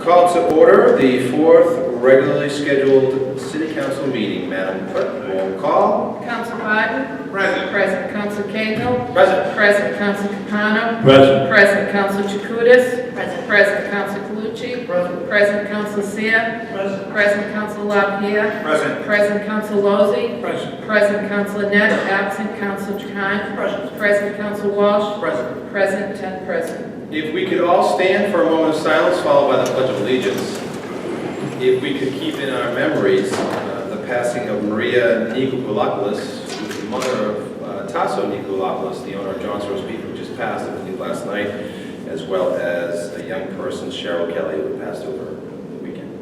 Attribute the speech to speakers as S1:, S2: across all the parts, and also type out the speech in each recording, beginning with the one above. S1: Call to order the fourth regularly scheduled city council meeting. Madam Clerk, roll call.
S2: Council Biden? Present. Present Council Cahill?
S1: Present.
S2: Present Council Capano?
S3: Present.
S2: Present Council Jacutis?
S4: Present.
S2: Present Council Calucci? Present. Present Council Seer? Present. Present Council LaPierre?
S1: Present.
S2: Present Council Lozey?
S3: Present.
S2: Present Council Net, absent Council Trahan? Present. Present Council Walsh?
S1: Present.
S2: Present, ten present.
S1: If we could all stand for a moment of silence followed by the Pledge of Allegiance. If we could keep in our memories uh, the passing of Maria Nikolopoulos, who was the mother of uh, Tasso Nikolopoulos, the owner of John's Roast Beef, who just passed, I believe, last night, as well as a young person, Cheryl Kelly, who passed over the weekend.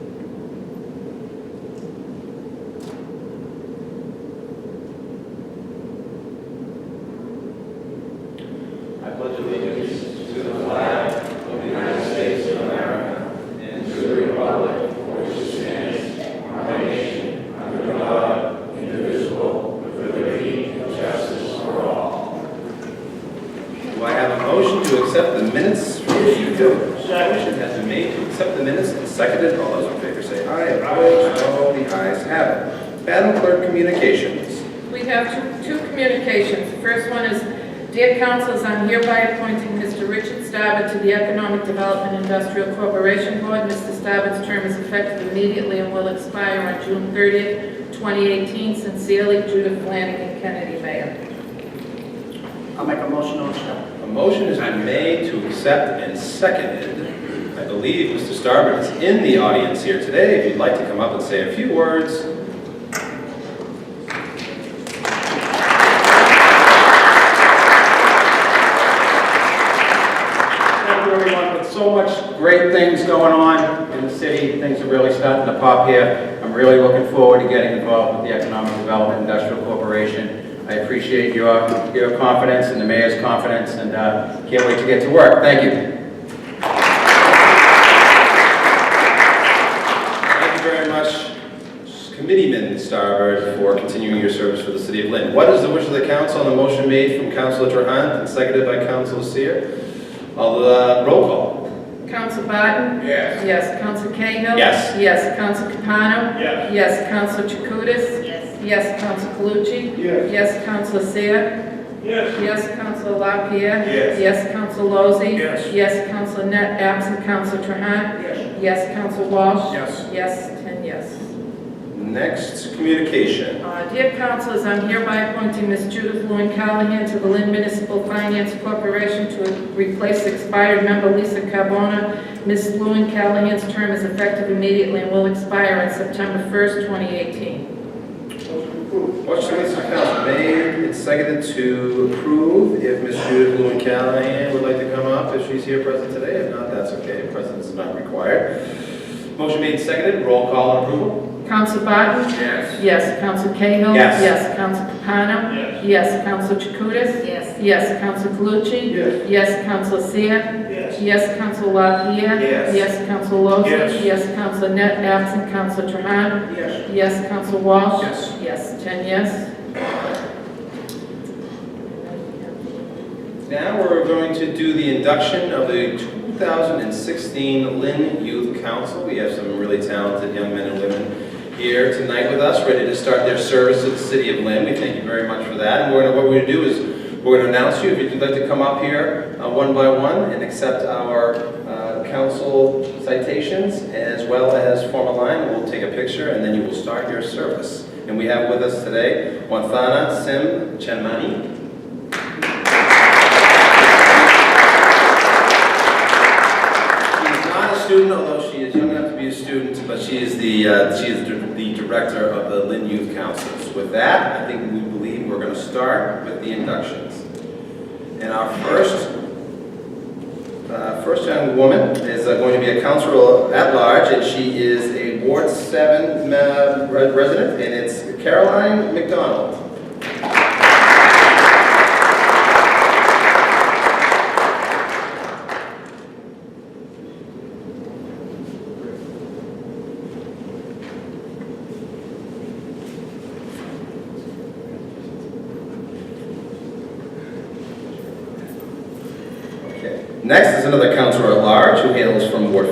S1: Do I have a motion to accept the minutes from the Motion has been made to accept the minutes and seconded. All those in favor say aye. Opposed, no. The ayes have it. Madam Clerk, communications.
S2: We have two- two communications. The First one is, dear councilors, I'm hereby appointing Mr. Richard Starbuck to the Economic Development Industrial Corporation Board. Mr. Starbuck's term is effective immediately and will expire on June 30th, 2018. Sincerely, Judith Flanagan, Kennedy Mayor.
S4: I'll make a motion on Michelle.
S1: A motion has been made to accept and seconded. I believe Mr. Starbird is in the audience here today. If you'd like to come up and say a few words.
S5: Thank you, everyone, with so much great things going on in the city, things are really starting to pop here. I'm really looking forward to getting involved with the Economic Development Industrial Corporation. I appreciate your, your confidence and the mayor's confidence, and uh, can't wait to get to work. Thank you.
S1: Thank you very much, Committeeman Starbird, for continuing your service for the city of Lynn. What is the wish of the council on the motion made from Councilor Trahan and seconded by Councilor Seer? All the roll call.
S2: Council Barton?
S5: Yes.
S2: Yes. Council Cahill?
S1: Yes.
S2: Yes. Council Capano?
S5: Yes.
S2: Yes. Council Jacutis?
S4: Yes.
S2: Yes. Council Calucci?
S5: Yes.
S2: Yes. Council Seer?
S5: Yes.
S2: Yes, Counsel LaPierre.
S5: Yes.
S2: Yes, Counsel Lozey.
S5: Yes.
S2: Yes, Counsel Net, absent Counsel Trahan.
S5: Yes.
S2: Yes, Counsel Walsh.
S5: Yes.
S2: Yes, ten yes.
S1: Next, communication.
S2: Uh, Dear councilors, I'm hereby appointing Ms. Judith Lewin Callahan to the Lynn Municipal Finance Corporation to replace expired member Lisa Carbona. Ms. Lewin Callahan's term is effective immediately and will expire on September 1st, 2018.
S1: Motion by Mr. Council made and seconded to approve. If Ms. Judith Lewin Callahan would like to come up, if she's here present today, if not, that's okay, presence is not required. Motion made and seconded, roll call on approval.
S2: Counsel Barton?
S5: Yes.
S2: Yes. Counsel Cahill?
S1: Yes.
S2: Yes, Counsel Capano?
S5: Yes.
S2: Yes, Counsel Chakutis?
S4: Yes.
S2: Yes, Counsel Calucci?
S5: Yes.
S2: Yes, Counsel Seer?
S5: Yes.
S2: Yes, Counsel LaPierre?
S5: Yes.
S2: Yes, Counsel Lozey?
S5: Yes.
S2: Yes, Counsel Net, absent Counsel Trahan?
S5: Yes.
S2: Yes, Counsel Walsh?
S5: Yes.
S2: Yes, ten yes.
S1: Now we're going to do the induction of the 2016 Lynn Youth Council. We have some really talented young men and women here tonight with us, ready to start their service to the city of Lynn. We thank you very much for that. And we're gonna, what we're gonna do is, we're gonna announce you, if you'd like to come up here, uh, one by one, and accept our, uh, council citations, as well as form a line, we'll take a picture, and then you will start your service. And we have with us today, Wanthana Sim Chenmani, She's not a student, although she is young enough to be a student, but she is the, uh, she is dir- the director of the Lynn Youth Councils. With that, I think we believe we're going to start with the inductions. And our first, uh, first young woman is uh, going to be a counselor at large, and she is a Ward 7 ma- re- resident, and it's Caroline McDonald. Okay. Next is another counselor at large who hails from Ward